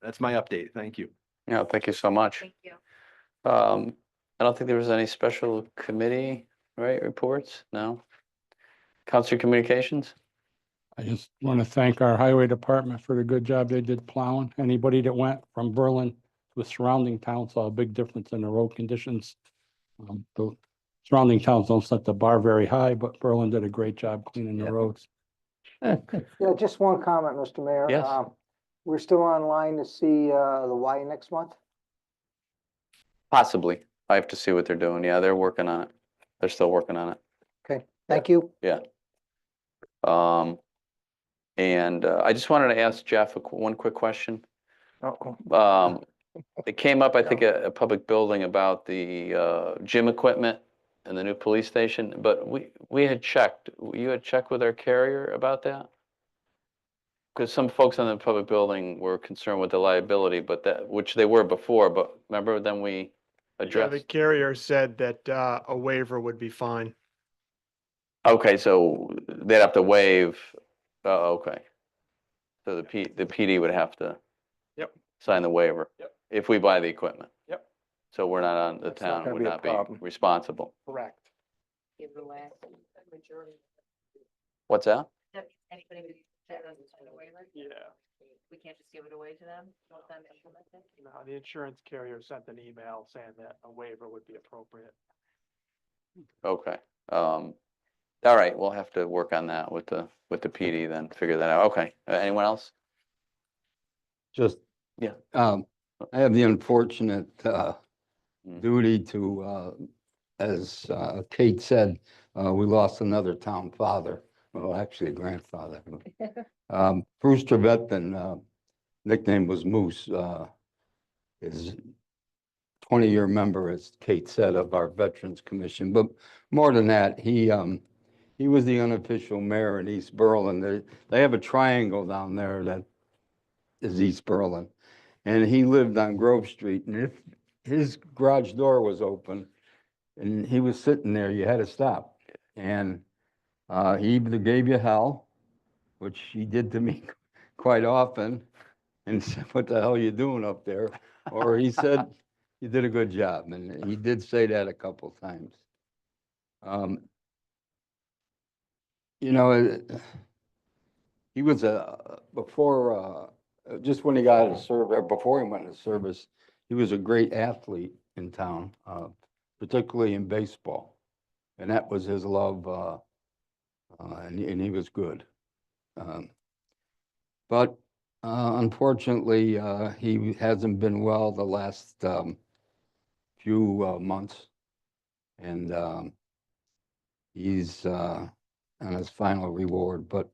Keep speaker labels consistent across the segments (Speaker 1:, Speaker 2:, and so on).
Speaker 1: that's my update. Thank you.
Speaker 2: Yeah, thank you so much.
Speaker 3: Thank you.
Speaker 2: Um, I don't think there was any special committee, right, reports? No? Council Communications?
Speaker 4: I just want to thank our highway department for the good job they did plowing. Anybody that went from Berlin to the surrounding towns saw a big difference in the road conditions. Um, The surrounding towns don't set the bar very high, but Berlin did a great job cleaning
Speaker 2: Yeah.
Speaker 4: the roads.
Speaker 5: Yeah, just one comment, Mr. Mayor.
Speaker 2: Yes.
Speaker 5: Um, We're still online to see uh, the Y next month.
Speaker 2: Possibly. I have to see what they're doing. Yeah, they're working on it. They're still working on it.
Speaker 5: Thank you.
Speaker 2: Um, and uh, I just wanted to ask Jeff a qu- one quick question.
Speaker 5: Uh-oh.
Speaker 2: Um, it came up, I think, at a public building about the uh, gym equipment and the new police station, but we, we had checked, you had checked with our carrier about that? Because some folks on the public building were concerned with the liability, but that, which they were before, but remember then we
Speaker 6: Yeah, The
Speaker 2: addressed?
Speaker 6: carrier said that uh, a waiver would be fine.
Speaker 2: Okay, so they'd have to waive, oh, okay. So the P, the PD would have to.
Speaker 6: Yep.
Speaker 2: Sign the waiver.
Speaker 6: Yep.
Speaker 2: If we buy the equipment.
Speaker 6: Yep.
Speaker 2: So we're not on, the
Speaker 5: That's not
Speaker 2: town
Speaker 5: gonna
Speaker 2: would
Speaker 5: be a
Speaker 2: not be
Speaker 5: problem.
Speaker 2: responsible.
Speaker 5: Correct.
Speaker 3: Give the last majority.
Speaker 2: What's that?
Speaker 3: That means anybody who that doesn't sign a waiver?
Speaker 6: Yeah.
Speaker 3: We can't just give it away to them, let them implement it?
Speaker 6: No, the insurance carrier sent an email saying that a waiver would be appropriate.
Speaker 2: Okay, um, all right, we'll have to work on that with the, with the PD then, figure that out. Okay, Uh, anyone else?
Speaker 7: Just.
Speaker 2: Yeah.
Speaker 7: Um, I have the unfortunate, uh,
Speaker 2: Mm.
Speaker 7: duty to, uh, as, uh, Kate said, uh, we lost another town father, well, actually a grandfather. Um, Bruce Trevethan, uh, nickname was Moose, uh, is twenty-year member, as Kate said, of our Veterans Commission, but more than that, he, um, he was the unofficial mayor in East Berlin. They, they have a triangle down there that is East Berlin. And he lived on Grove Street and if his garage door was open and he was sitting there, you had to stop. And uh, he either gave you hell, which he did to me quite often, and said, what the hell you doing up there? Or he said, you did a good job. And he did say that a couple times. Um, You know, it- he was a, before, uh, uh, just when he got out of service, before he went into service, he was a great athlete in town, uh, particularly in baseball. And that was his love, uh, uh, and, and he was good. Um, But, uh, unfortunately, uh, he hasn't been well the last, um, few, uh, months. And, um, he's, uh, on his final reward, but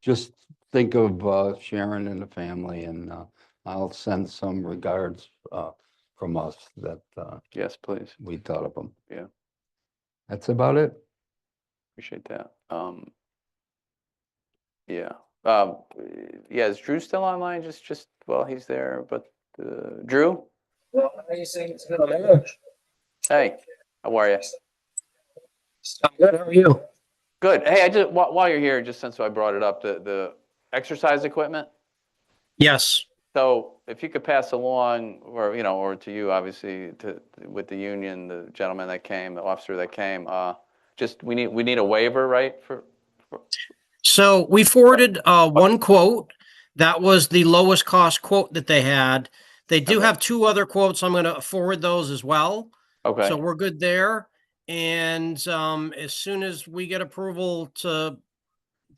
Speaker 7: just think of uh, Sharon and the family, and uh, I'll send some regards uh, from us that uh,
Speaker 2: Yes, please,
Speaker 7: we thought of them.
Speaker 2: Yeah.
Speaker 7: That's about it.
Speaker 2: appreciate that, um. Yeah, um, yeah, is Drew still online? Just, just, well, he's there, but, uh, Drew,
Speaker 8: Well, amazing. It's been a minute.
Speaker 2: hey, how are you?
Speaker 8: I'm good. How are you?
Speaker 2: Good. Hey, I just, while, while you're here, just since I brought it up, the, the exercise equipment.
Speaker 8: Yes.
Speaker 2: So if you could pass along, or, you know, or to you, obviously, to, with the union, the gentleman that came, the officer that came, uh, just, we need, we need a waiver, right, for,
Speaker 8: So we forwarded uh, one quote. That was the lowest cost quote that they had. They do
Speaker 2: Okay.
Speaker 8: have two other quotes. I'm going to forward those as well.
Speaker 2: okay,
Speaker 8: So we're good there. And um, as soon as we get approval to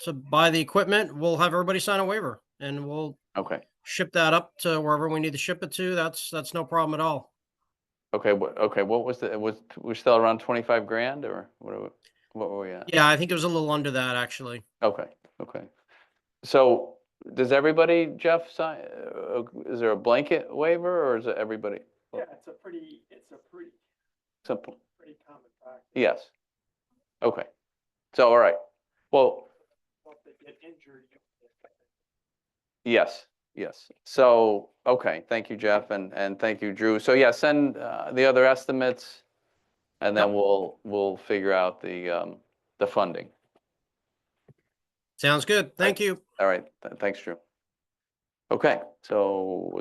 Speaker 8: to buy the equipment, we'll have everybody sign a waiver and we'll
Speaker 2: okay,
Speaker 8: ship that up to wherever we need to ship it to. That's that's no problem at all.
Speaker 2: okay, wha- okay, what was the, was, we're still around twenty-five grand, or what are we, what were we at?
Speaker 8: Yeah, I think it was a little under that actually.
Speaker 2: Okay, okay. So, does everybody, Jeff, sign, uh, is there a blanket waiver, or is it everybody?
Speaker 6: Yeah, it's a pretty, it's a pretty,
Speaker 2: Simple.
Speaker 6: pretty common practice.
Speaker 2: Yes. Okay. So, all right. Well,
Speaker 6: If they get injured, you-
Speaker 2: yes, yes. So, okay, thank you, Jeff, and, and thank you, Drew. So yeah, send uh, the other estimates and then
Speaker 8: Yep.
Speaker 2: we'll, we'll figure out the, um, the funding.
Speaker 8: Sounds good. Thank you.
Speaker 2: All right, th- thanks, Drew. Okay, so